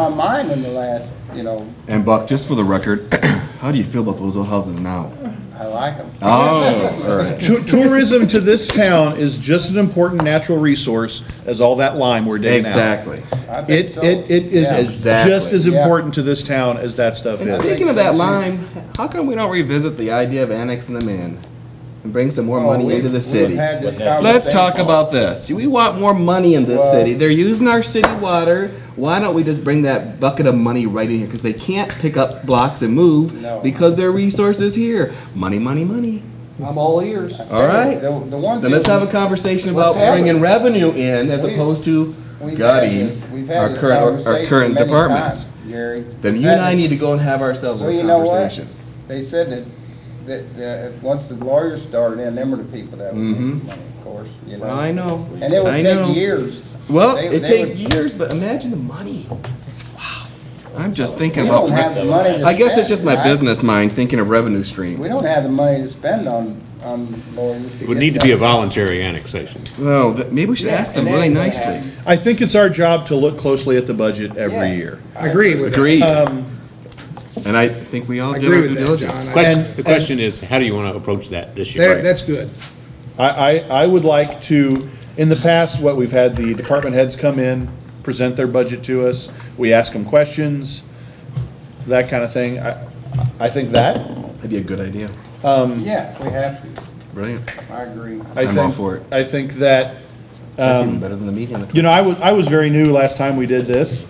on mine in the last, you know, And Buck, just for the record, how do you feel about those old houses now? I like them. Oh, all right. Tou- Tourism to this town is just an important natural resource as all that lime we're digging out. Exactly. I think It, so. it, it is Yeah. as- Exactly. just as Yeah. important to this town as that stuff And is. speaking of that lime, how come we don't revisit the idea of annexing them in and bring some more Oh, money we- into the we've city? had this Let's conversation. talk about this. We want more money in this Well- city. They're using our city water. Why don't we just bring that bucket of money right in here? Because they can't pick up blocks and move No. because their resource is here. Money, money, money. I'm all ears. All right. The, the one Then thing. let's have a conversation about Let's have it. bringing revenue in as We- opposed to we've had gutting this- we've had our this current, our conversation current many departments. times, Gary. Then We've you had and I this- need to go and have ourselves a Well, you know what? conversation. They said that, that, that, once the lawyers started in, them were the people that would make Mhm. the money, of course, you know. Well, I know. And it I would know. take years. Well, They- it they take would- years, but imagine the money. Wow. I'm just We thinking about. don't have the money to spend. I guess it's just my right? business mind thinking of revenue We stream. don't have the money to spend on, on lawyers. Would need to be a voluntary annexation. Well, th- maybe we should ask them really nicely. I think it's our job to look closely at the budget every Yes. year. Agree with that. Agreed. Um, And I think we all I did our agree due with that, John. diligence. I- Question, And- the question is, how do you want to approach that this year? that- That's good. I, I, I would like to, in the past, what we've had the department heads come in, present their budget to us, we ask them questions, that kind of thing. I, I think that, um, That'd be a good idea. Yeah, we have to. Brilliant. I agree. I I'm all think- for it. I think that, That's um, even better than the meeting. on the You know, I was, I was very new last time we did this,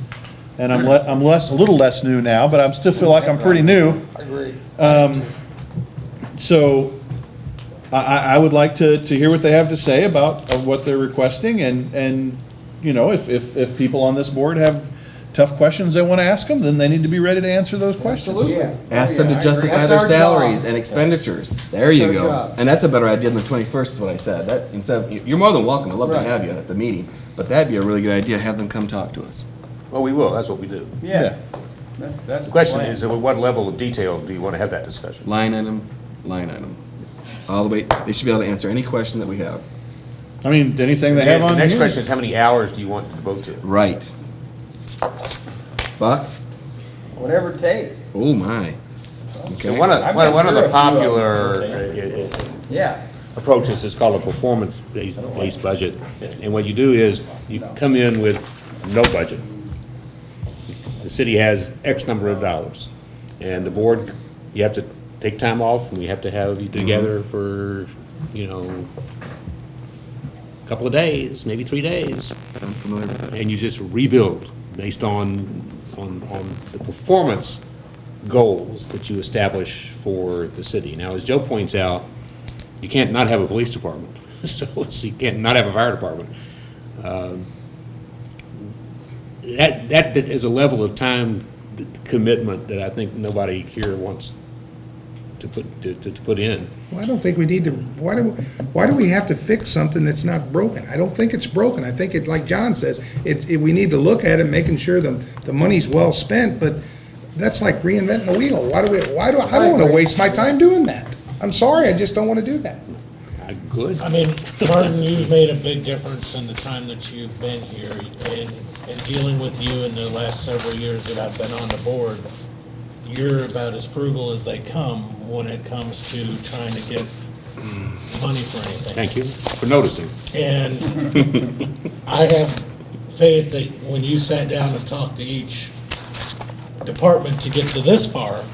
and I'm, le- I'm less, a little less new now, but I still feel like I'm pretty new. I agree. Um, So I, I, I would like to, to hear what they have to say about uh, what they're requesting, and, and, you know, if, if, if people on this board have tough questions they want to ask them, then they need to be ready to answer those questions. Yeah. 20th. Oh, Ask them Yeah, I to agree. justify That's their our salaries job. and expenditures. There you our go. job. And that's a better idea than the twenty-first is what I said. That, instead, of- you- you're more than welcome. I'd love to Right. have you at the meeting. But that'd be a really good idea. Have them come talk to us. Well, we will, that's what we do. Yeah. That- That's The question plan. is, at what level of detail do you want to have that discussion? Line item, line item. All the way, they should be able to answer any question that we have. I mean, anything they The have on next here. question is, how many hours do you want to devote to? it? Right. Buck? Whatever it takes. Oh, my. So Okay. one of, I've one been one of through the a few of them. popular uh, uh, Yeah. approaches is called a performance-based based budget. And what you do is, you come in with no budget. The city has X number of dollars. And the board, you have to take time off, and we have to have you together Mm-hmm. for, you know, a couple of days, maybe three days. I'm familiar with that. and you just rebuild based on, on, on the performance goals that you establish for the city. Now, as Joe points out, you can't not have a police department, so it's- you can't not have a fire department. Um, That, that is a level of time commitment that I think nobody here wants to put, to, to to put in. Well, I don't think we need to, why do, why do we have to fix something that's not broken? I don't think it's broken. I think it, like John says, it, it, we need to look at it, making sure the, the money's well spent, but that's like reinventing the wheel. Why do we, why do, I don't wanna waste my time doing that. I'm sorry, I just don't wanna do that. I- Good. I mean, Martin, you've made a big difference in the time that you've been here, and, and dealing with you in the last several years that I've been on the board, you're about as frugal as they come when it comes to trying to get money for anything. Thank you for noticing. And I have faith that when you sat down and talked to each department to get to this far,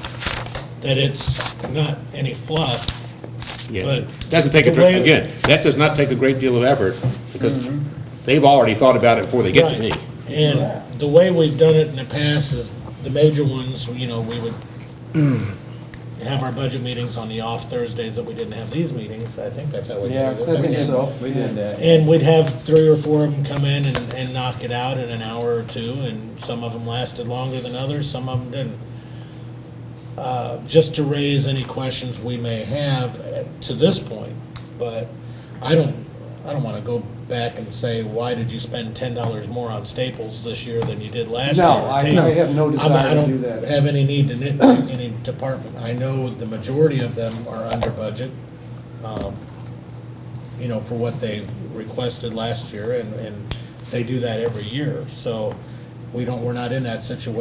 that it's not any fluff, Yeah, But doesn't take a, the way- Mm-hmm. again, that does not take a great deal of effort, because they've already thought about it before they get to me. Right. And the way we've done it in the past is, the major ones, you know, we would have our budget meetings on the off Thursdays that we didn't have these meetings, I think that's how we did Yeah. it. We did that. And we'd have three or four of them come in and, and knock it out in an hour or two, and some of them lasted longer than others, some of them didn't. Uh, just to raise any questions we may have uh, to this point, but I don't, I don't wanna go back and say, why did you spend ten dollars more on Staples this year than you did last year? No, I- I have no I'm- desire to do I that. don't have any need to nitpick any department, I know the majority of them are under budget, um, you know, for what they requested last year, and, and they do that every year, so we don't, we're not in that situation